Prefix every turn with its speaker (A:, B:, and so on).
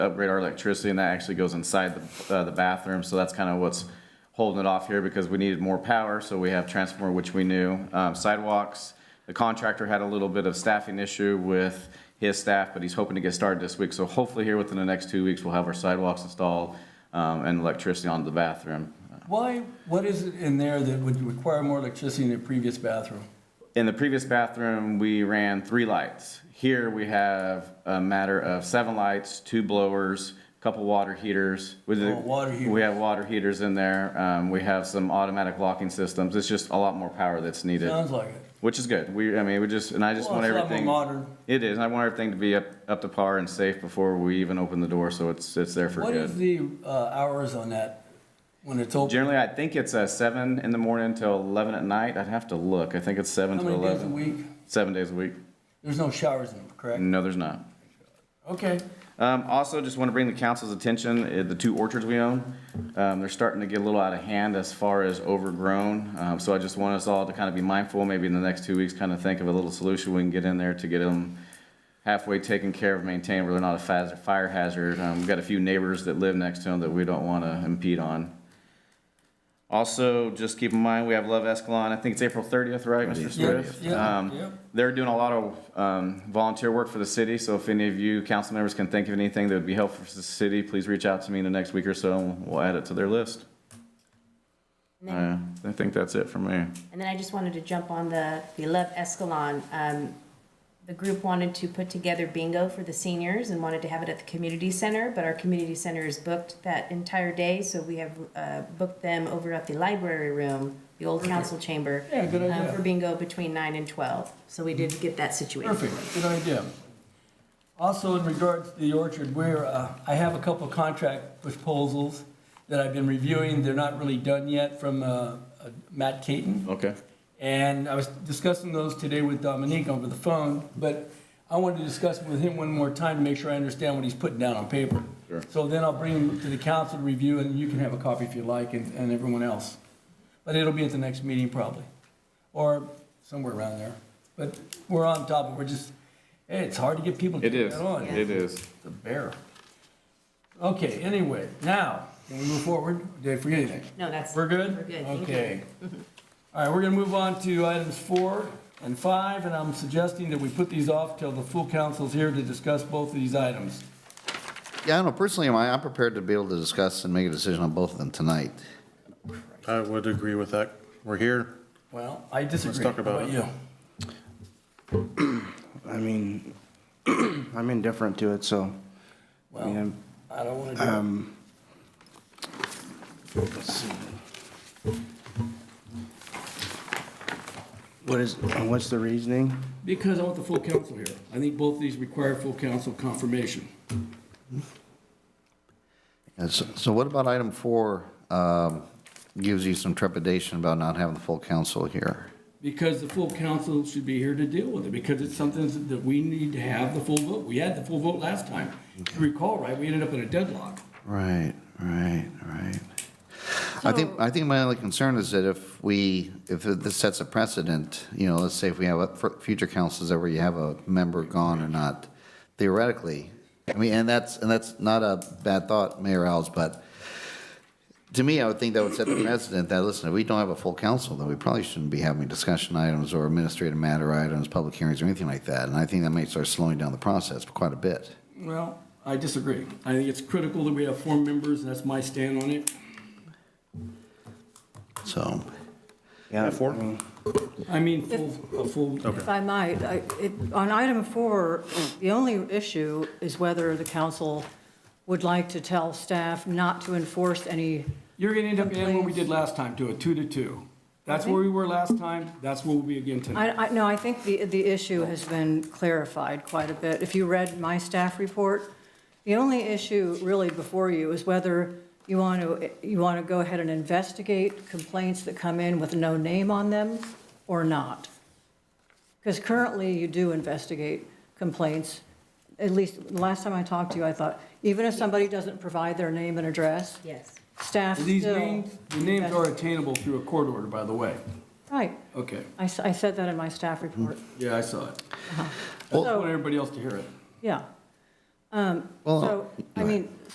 A: upgrade our electricity, and that actually goes inside the, uh, the bathroom, so that's kind of what's holding it off here, because we needed more power, so we have transformer, which we knew. Um, sidewalks, the contractor had a little bit of staffing issue with his staff, but he's hoping to get started this week, so hopefully here within the next two weeks, we'll have our sidewalks installed, um, and electricity on the bathroom.
B: Why, what is it in there that would require more electricity than the previous bathroom?
A: In the previous bathroom, we ran three lights. Here we have a matter of seven lights, two blowers, couple water heaters. With the-
B: Oh, water heaters.
A: We have water heaters in there. Um, we have some automatic locking systems. It's just a lot more power that's needed,
B: Sounds like it.
A: which is good. We, I mean, we just, and I just
B: Well,
A: want
B: it's a lot more
A: everything.
B: modern.
A: It is. I want everything to be up, up to par and safe before we even open the door, so it's, it's there for
B: What is
A: good.
B: the uh, hours on that when it's open?
A: Generally, I think it's uh, seven in the morning till eleven at night. I'd have to look. I think it's seven
B: How
A: to
B: many days a
A: eleven.
B: week?
A: Seven days a week.
B: There's no showers in them, correct?
A: No, there's not.
B: Okay.
A: Um, also, just want to bring the council's attention, uh, the two orchards we own, um, they're starting to get a little out of hand as far as overgrown. Um, so I just want us all to kind of be mindful, maybe in the next two weeks, kind of think of a little solution we can get in there to get them halfway taken care of, maintained, where they're not a faz- fire hazard. Um, we've got a few neighbors that live next to them that we don't want to impede on. Also, just keep in mind, we have Love Escalon, I think it's April thirtieth, right, Mr. Swift?
B: Yes, yeah,
A: Um,
B: yep.
A: They're doing a lot of um, volunteer work for the city, so if any of you council members can think of anything that would be helpful for the city, please reach out to me in the next week or so, and we'll add it to their list.
C: And then-
A: Uh, I think that's it for me.
C: And then I just wanted to jump on the, the Love Escalon. Um, the group wanted to put together bingo for the seniors and wanted to have it at the community center, but our community center is booked that entire day, so we have, uh, booked them over at the library room, the old council chamber.
B: Yeah, good
C: um,
B: idea.
C: For bingo between nine and twelve, so we did get that situated.
B: Perfect, good idea. Also, in regards to the orchard, where, uh, I have a couple of contract proposals that I've been reviewing, they're not really done yet, from, uh, uh, Matt Caton.
A: Okay.
B: And I was discussing those today with Dominique over the phone, but I wanted to discuss it with him one more time to make sure I understand what he's putting down on paper.
A: Sure.
B: So then I'll bring him to the council to review, and you can have a copy if you like, and, and everyone else. But it'll be at the next meeting probably, or somewhere around there. But we're on top of, it. we're just, hey, it's hard to get people to
A: It
B: get
A: is,
B: that on.
A: it is.
B: It's a bear. Okay, anyway, now, can we move forward? Did I forget anything?
C: No, that's.
B: We're good?
C: We're good, thank you.
B: Okay. All right, we're gonna move on to items four and five, and I'm suggesting that we put these off till the full council's here to discuss both of these items.
D: Yeah, I don't know, personally, am I, I'm prepared to be able to discuss and make a decision on both of them tonight.
E: I would agree with that. We're here.
B: Well, I disagree.
E: talk about
B: How
E: it.
B: you?
F: I mean, I'm indifferent to it, so, um, I mean,
B: Well,
F: I'm-
B: I don't wanna do it.
F: what is, what's the reasoning?
B: Because I want the full council here. I think both of these require full council confirmation.
D: And so, so what about item four, um, gives you some trepidation about not having the full council here?
B: Because the full council should be here to deal with it, because it's something that we need to have the full vote. We had the full vote last time. If you recall, right, we ended up in a deadlock.
D: Right, right, right. I think, I think my only concern is that if we, if this sets a precedent, you know, let's say if we have a- for future councils that where you have a member gone or not, theoretically, I mean, and that's, and that's not a bad thought, Mayor Alves, but to me, I would think that would set the precedent that, listen, if we don't have a full council, then we probably shouldn't be having discussion items or administrative matter items, public hearings or anything like that. And I think that might start slowing down the process quite a bit.
B: Well, I disagree. I think it's critical that we have four members, and that's my stand on it.
D: So,
F: Yeah,
E: Four?
F: I mean,
B: I mean, full, a full,
G: If I might, I- it- on item four, the only issue is whether the council would like to tell staff not to enforce any,
B: you're gonna end up in what we did last time, to a two to two. That's where we were last time, that's where we'll be again tonight.
G: I, I, no, I think the, the issue has been clarified quite a bit. If you read my staff report, the only issue really before you is whether you want to, you want to go ahead and investigate complaints that come in with no name on them or not. Because currently, you do investigate complaints. At least, the last time I talked to you, I thought, even if somebody doesn't provide their name and address,
C: Yes.
G: staff still.
B: These names, the names are attainable through a court order, by the way.
G: Right.
B: Okay,
G: I, s- I said that in my staff report.
B: yeah, I saw it. I just
G: So-
B: want everybody else to hear it.
G: Yeah. Um,
D: Well,
G: So, I
D: go
G: mean,